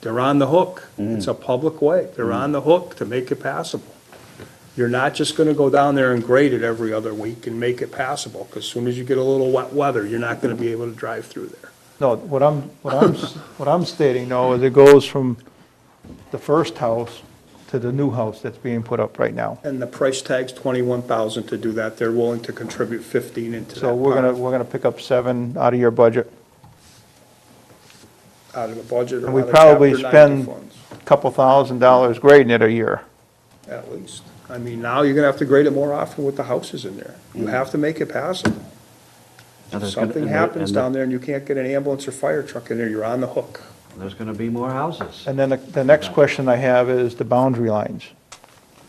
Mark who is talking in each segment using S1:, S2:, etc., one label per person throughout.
S1: They're on the hook. It's a public way. They're on the hook to make it passable. You're not just gonna go down there and grade it every other week and make it passable, because soon as you get a little wet weather, you're not gonna be able to drive through there.
S2: No, what I'm, what I'm, s- what I'm stating though is it goes from the first house to the new house that's being put up right now.
S1: And the price tag's twenty-one thousand to do that. They're willing to contribute fifteen into that
S2: So we're gonna,
S1: part,
S2: we're gonna pick up seven out of your budget,
S1: out of the budget or
S2: and we
S1: out of Chapter
S2: probably
S1: 90
S2: spend
S1: funds,
S2: a couple thousand dollars grading it a year.
S1: At least. I mean, now you're gonna have to grade it more often with the houses in there. You have to make it passable.
S3: Now,
S1: If
S3: there's gonna-
S1: something
S3: and there-
S1: happens
S3: and there-
S1: down there and you can't get an ambulance or fire truck in there, you're on the hook.
S3: There's gonna be more houses.
S2: And then the, the next question I have is the boundary lines.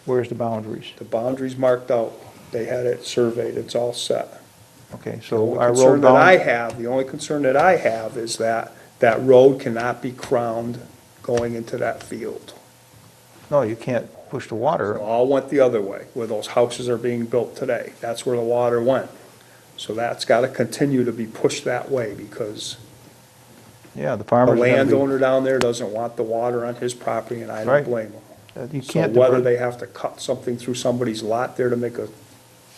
S2: Where's the boundaries?
S1: The boundary's marked out. They had it surveyed. It's all set.
S2: Okay,
S1: The
S2: so
S1: only
S2: our
S1: concern
S2: road
S1: that I
S2: bound,
S1: have, the only concern that I have is that that road cannot be crowned going into that field.
S2: no, you can't push the water.
S1: All went the other way, where those houses are being built today. That's where the water went. So that's gotta continue to be pushed that way, because
S2: Yeah, the
S1: the
S2: farmer's are gonna
S1: landowner down there doesn't want the water on his property, and I don't
S2: Right.
S1: blame him.
S2: be, you
S1: So
S2: can't.
S1: whether
S2: divert-
S1: they have to cut something through somebody's lot there to make a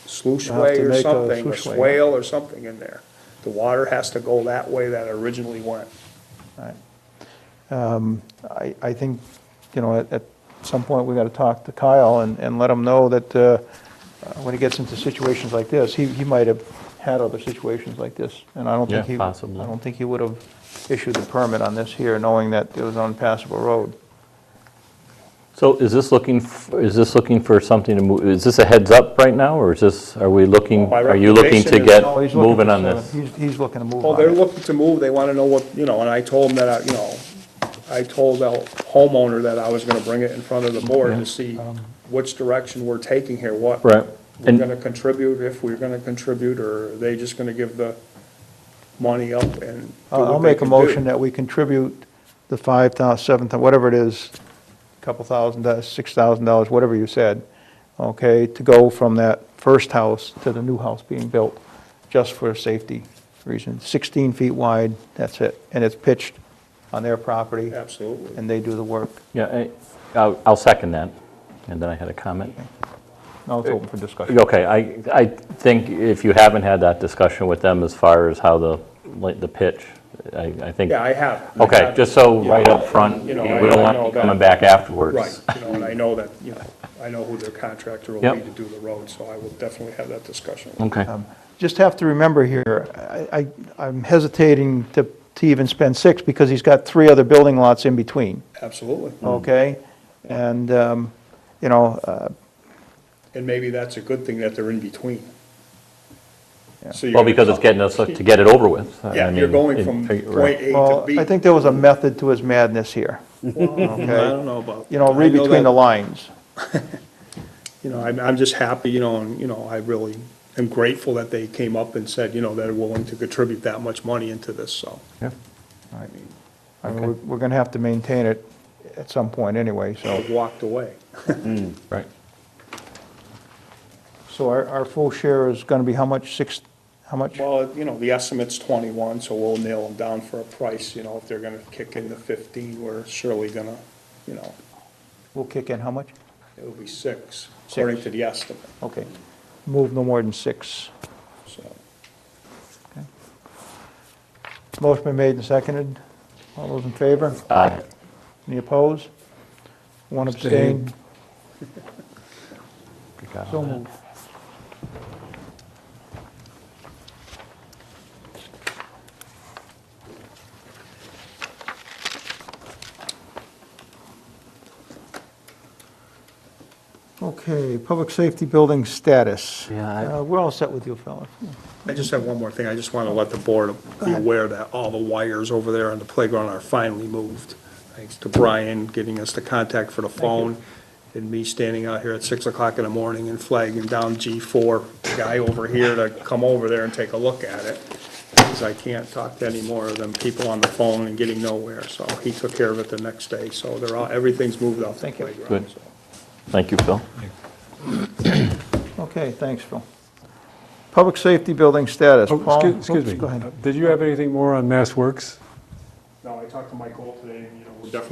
S1: sluice
S2: Have
S1: way
S2: to
S1: or
S2: make a
S1: something, a
S2: sluice way.
S1: swale or something in there. The water has to go that way that it originally went.
S2: I, I think, you know, at, at some point, we gotta talk to Kyle and, and let him know that, uh, uh, when he gets into situations like this, he, he might have had other situations like this, and I don't think he,
S4: Yeah,
S2: I
S4: possibly.
S2: don't think he would have issued the permit on this here, knowing that it was an unpassable road.
S4: So is this looking, f- is this looking for something to move, is this a heads up right now, or is this, are we looking,
S1: My
S4: are you looking to
S1: recommendation is
S4: get
S2: No, he's looking
S4: moving
S2: for
S4: on
S2: seven.
S4: this?
S2: He's, he's looking to move
S1: Well, they're
S2: on it.
S1: looking to move, they wanna know what, you know, and I told them that, I you know, I told the homeowner that I was gonna bring it in front of the board to see
S2: Um,
S1: which direction we're taking here, what
S4: Right.
S1: we're
S4: And,
S1: gonna contribute, if we're gonna contribute, or are they just gonna give the money up and do
S2: I'll Uh, I'll
S1: what they
S2: make a
S1: can do?
S2: motion that we contribute the five thou, seven thou, whatever it is, couple thousand, dollars, six thousand dollars, whatever you said, okay, to go from that first house to the new house being built, just for safety reasons. Sixteen feet wide, that's it, and it's pitched on their property,
S1: Absolutely.
S2: and they do the work.
S4: yeah, I- I'll I'll second that, and then I had a comment.
S2: Now it's open for discussion.
S4: Okay, I, I think if you haven't had that discussion with them as far as how the, like, the pitch, I, I think.
S1: Yeah, I have. I
S4: Okay,
S1: have-
S4: just so right
S1: Yeah.
S4: up front, we
S1: You know, I- I
S4: don't want
S1: know
S4: you
S1: that-
S4: coming back afterwards.
S1: Right, you know, and I know that, you know, I know who their contractor will be
S4: Yep. Mm.
S1: to do the road, so I will definitely have that discussion. with
S4: Okay.
S2: Just have to remember here, I, I- I'm hesitating to, to even spend six, because he's got three other building lots in between,
S1: them. Absolutely.
S2: okay? And, um, you know, uh,
S1: And maybe that's a good thing that they're in between. So you're
S4: Well,
S1: gonna-
S4: because it's getting us to get it over with. I
S1: Yeah, you're
S4: mean,
S1: going
S4: it-
S1: from
S4: right.
S1: point A to
S2: Well,
S1: B.
S2: I think there was a method to his madness here, okay?
S1: know about.
S2: You know, read
S1: I
S2: between
S1: that-
S2: the lines.
S1: You know, I'm, I'm just happy, you know, and, you know, I really am grateful that they came up and said, you know, they're willing to contribute that much money into this, so.
S4: Yeah.
S1: I mean,
S2: I mean, we're, we're gonna have to maintain it at some point anyway, so.
S1: I walked away.
S4: Right.
S2: So our, our full share is gonna be how much, six, how much?
S1: Well, you know, the estimate's twenty-one, so we'll nail them down for a price, you know, if they're gonna kick in the fifteen, we're surely gonna, you know,
S2: We'll kick in how much?
S1: it'll be six, according to the estimate,
S2: Okay. Move no more than six.
S1: so.
S2: Motion been made and seconded. All those in favor?
S4: Aye.
S2: Any opposed? One abstain. So moved. Okay, public safety building status.
S4: Yeah, I-
S2: Uh, We're all set with you, fellas.
S1: I just have one more thing, I just wanna let the board be aware that all the wires over there on the playground are finally moved. Thanks to Brian getting us the contact for the phone, and me standing out here at six o'clock in the morning and flagging down G four, the guy over here to come over there and take a look at it. Because I can't talk to any more of them people on the phone and getting nowhere, so he took care of it the next day, so they're all, everything's moved off the
S2: Thank you.
S1: playground,
S4: Good.
S1: so.
S4: Thank you, Phil.
S2: Okay, thanks, Phil. Public safety building status.
S5: Oh,
S2: Paul?
S5: excuse- Excuse
S2: Oops,
S5: me.
S2: Go ahead.
S5: Did you have anything more on Mass Works?
S1: No, I talked to Mike Gold today, and you